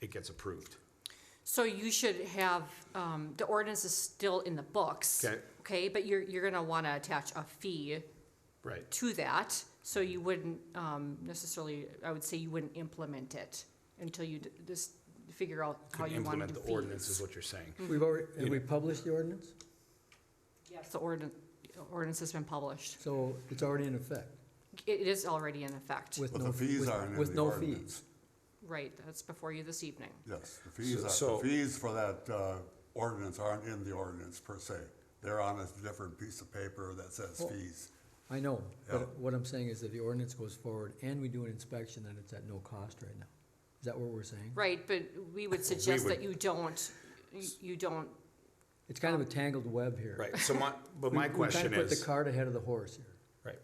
it gets approved. So you should have, um, the ordinance is still in the books. Okay. Okay, but you're, you're gonna wanna attach a fee Right. to that, so you wouldn't, um, necessarily, I would say you wouldn't implement it until you d- just figure out how Could you wanna implement do the fees. ordinance is what you're saying. Mm-hmm. We've already, have You we published the ordinance? Yes, the ordinance, ordinance has been published. So it's already in effect It is already in effect, with But no. the fees with- aren't in With the no ordinance. fees. right, that's before you this evening. Yes, the fees, So- are- the fees for that uh, ordinance aren't in the ordinance per se. They're on a different piece of paper that says Well- fees. I know, Yeah. but what I'm saying is if the ordinance goes forward and we do an inspection, then it's at no cost right now. Is that what we're saying? Right, but we would suggest would- that you don't, you- you don't, It's kind of a tangled web here. Right, so my, but We- my we kinda question Put the is, cart ahead of the horse here. right,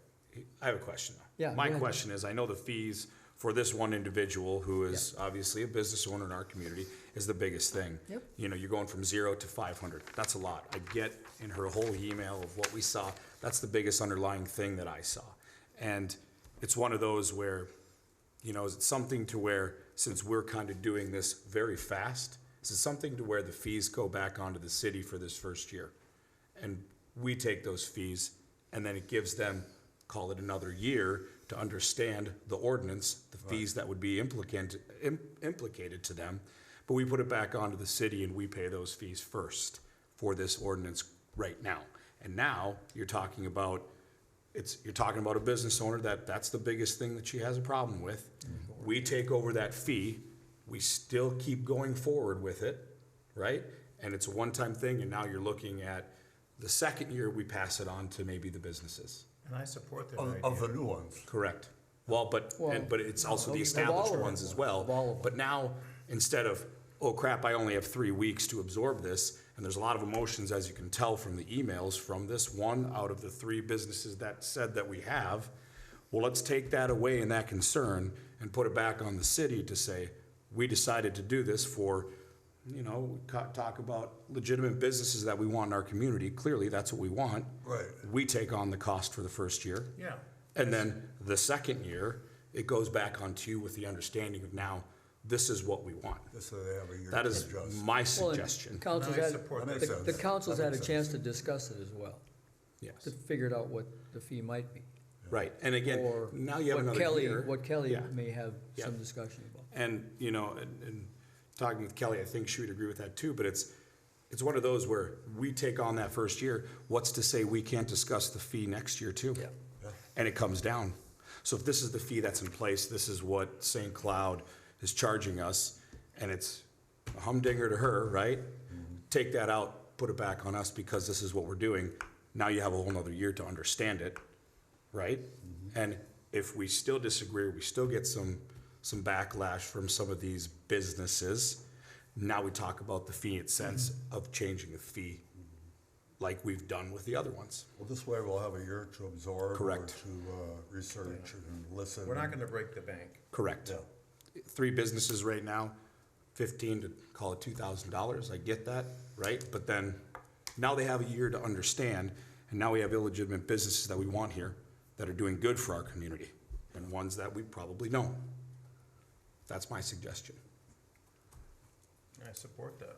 I have a question. Yeah, My go ahead. question is, I know the fees for this one individual who is obviously a business owner in our community is the biggest thing. Yep. You know, you're going from zero to five hundred, that's a lot. I get in her whole email of what we saw, that's the biggest underlying thing that I saw. And it's one of those where You know, is it something to where, since we're kind of doing this very fast, is it something to where the fees go back onto the city for this first year? And we take those fees, and then it gives them, call it another year, to understand the ordinance, the fees that would be implicant, im- implicated to them. But we put it back onto the city and we pay those fees first for this ordinance right now. And now, you're talking about it's, you're talking about a business owner that, that's the biggest thing that she has a problem with. We take over that fee, we still keep going forward with it, right? And it's a one-time thing, and now you're looking at the second year, we pass it on to maybe the businesses. And I support that Of, idea. of the new ones, Correct. Well, but, and, but it's also the Well, established of all of ones them. as Of all of well. them. But now, instead of, oh crap, I only have three weeks to absorb this, and there's a lot of emotions, as you can tell from the emails, from this one out of the three businesses that said that we have. Well, let's take that away and that concern and put it back on the city to say, we decided to do this for, you know, we ca- talk about legitimate businesses that we want in our community. Clearly, that's what we want. Right. We take on the cost for the first year. Yeah. And then the second year, it goes back on to you with the understanding of now, this is what we want. just so they have a year That to is adjust. my Well, and suggestion. Council's I had, support the- that. That makes the sense. council's That had a makes chance to discuss it as well, Yes, to figure out what the fee might be. right. And again, or now you have what another Kelly- year. What Kelly Yeah. may have Yeah. some discussion about. And, you know, and, and talking with Kelly, I think she would agree with that too, but it's, it's one of those where we take on that first year, what's to say we can't discuss the fee next year too? Yeah. And it comes down. So if this is the fee that's in place, this is what St. Cloud is charging us, and it's a humdinger to her, right? Take that out, put it back on us because this is what we're doing. Now you have a whole nother year to understand it right? And if we still disagree, we still get some, some backlash from some of these businesses. Now we talk about the fee in sense of changing the fee like we've done with the other ones. Well, this way we'll have a year to absorb. Correct. Or to uh, research and listen. We're not gonna break the bank. Correct. Three businesses right now, fifteen to call it two thousand dollars, I get that, right? But then, now they have a year to understand, and now we have illegitimate businesses that we want here that are doing good for our community, and ones that we probably don't. That's my suggestion. I support that.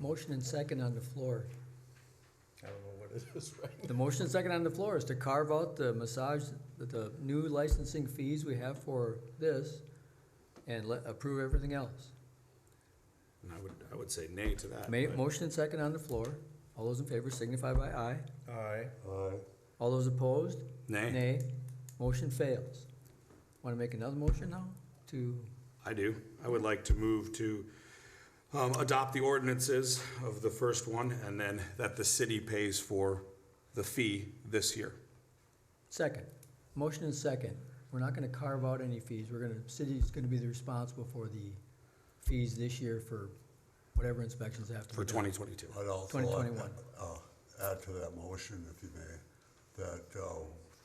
Motion and second on the floor. I don't know what it is right The motion and second on the floor is to carve out the massage, the- the new licensing fees we have for this and let, approve everything else. And I would, I would say nay to that. Ma- but- motion and second on the floor. All those in favor signify by aye. now. Aye. Uh, All those opposed? Nay, Nay. Motion fails. Want to make another motion now to, I do. I would like to move to um, adopt the ordinances of the first one and then that the city pays for the fee this year. second? Motion and second. We're not going to carve out any fees. We're going to, city's going to be the responsible for the fees this year for whatever inspections have to be For done. 2022. I'd also like 2021. to uh, add to that motion, if you may, that uh,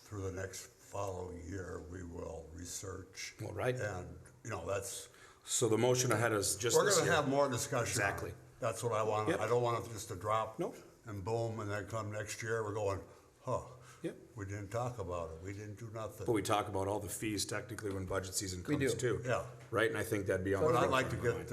through the next following year, we will research. Well, right. And, you know, that's, So the motion ahead is just we're this gonna year. have more discussion. on it. Exactly. That's what I want. Yep. I don't want it just to drop. Nope. And boom, and then come next year, we're going, huh. Yep. We didn't talk about it. We didn't do nothing. But we talk about all the fees technically when budget season We comes do. too. Yeah. Right, and I think that'd be on. the But I'd front like of to my get mind.